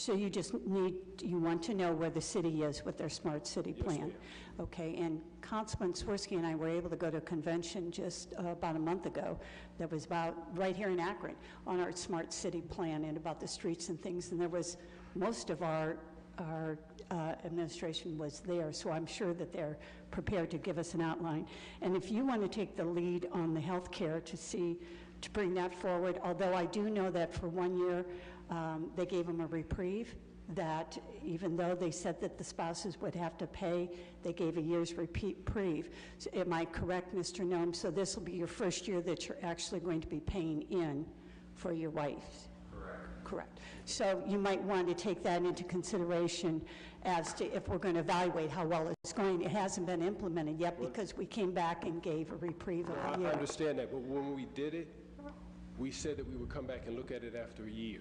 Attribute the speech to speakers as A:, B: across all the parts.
A: So you just need, you want to know where the city is with their smart city plan? Okay, and Councilman Sworsky and I were able to go to a convention just uh, about a month ago that was about, right here in Akron, on our smart city plan and about the streets and things, and there was, most of our, our uh, administration was there, so I'm sure that they're prepared to give us an outline. And if you want to take the lead on the healthcare to see, to bring that forward, although I do know that for one year, um, they gave them a reprieve, that even though they said that the spouses would have to pay, they gave a year's repeat- reprieve. So Am I correct, Mr. Nome? So this will be your first year that you're actually going to be paying in for your wife? Correct. Correct. So you might want to take that into consideration as to if we're going to evaluate how well it's going. It hasn't been implemented yet because we came back and gave a reprieve
B: I
A: of a
B: I
A: year.
B: understand that, but when we did it, we said that we would come back and look at it after a year.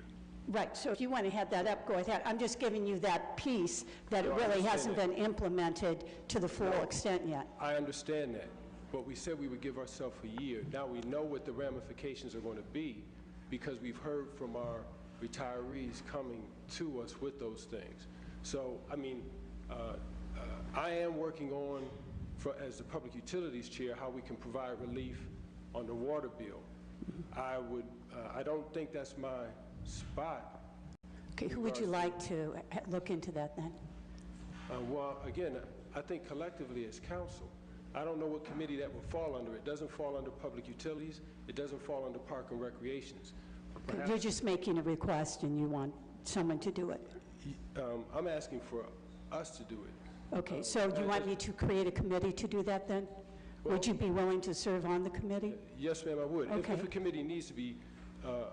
A: Right, so if you want to have that up, go ahead. I'm just giving you that piece that it
B: No, I
A: really
B: understand
A: hasn't
B: that.
A: been implemented to the full extent yet.
B: I understand that, but we said we would give ourselves a year. Now we know what the ramifications are going to be because we've heard from our retirees coming to us with those things. So, I mean, uh, uh, I am working on, for- as the Public Utilities Chair, how we can provide relief on the water bill. I would, uh, I don't think that's my spot,
A: Okay, who would you like to uh, look into that then?
B: Uh, Well, again, I think collectively as council, I don't know what committee that would fall under. It doesn't fall under public utilities, it doesn't fall under park and recreations.
A: You're just making a request and you want someone to do it.
B: Um, I'm asking for us to do it.
A: Okay,
B: Uh,
A: so do you want me to create a committee to do that then? Would you be willing to serve on the committee?
B: Yes, ma'am, I would. If- If
A: Okay.
B: a committee needs to be, uh,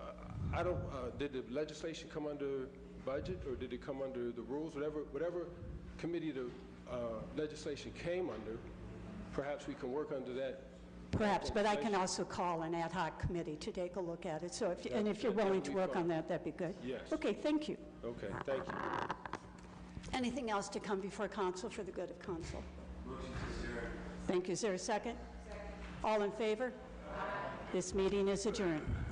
B: I don't, uh, did the legislation come under budget, or did it come under the rules? Whatever, whatever committee the uh, legislation came under, perhaps we can work under that.
A: Perhaps, but I can also call an ad hoc committee to take a look at it, so if, and if you're willing to work on that, that'd be good.
B: Yes.
A: Okay, thank you.
B: Okay, thank you.
A: Anything else to come before council for the good of council? Thank you. Is there a second? All in favor? This meeting is adjourned.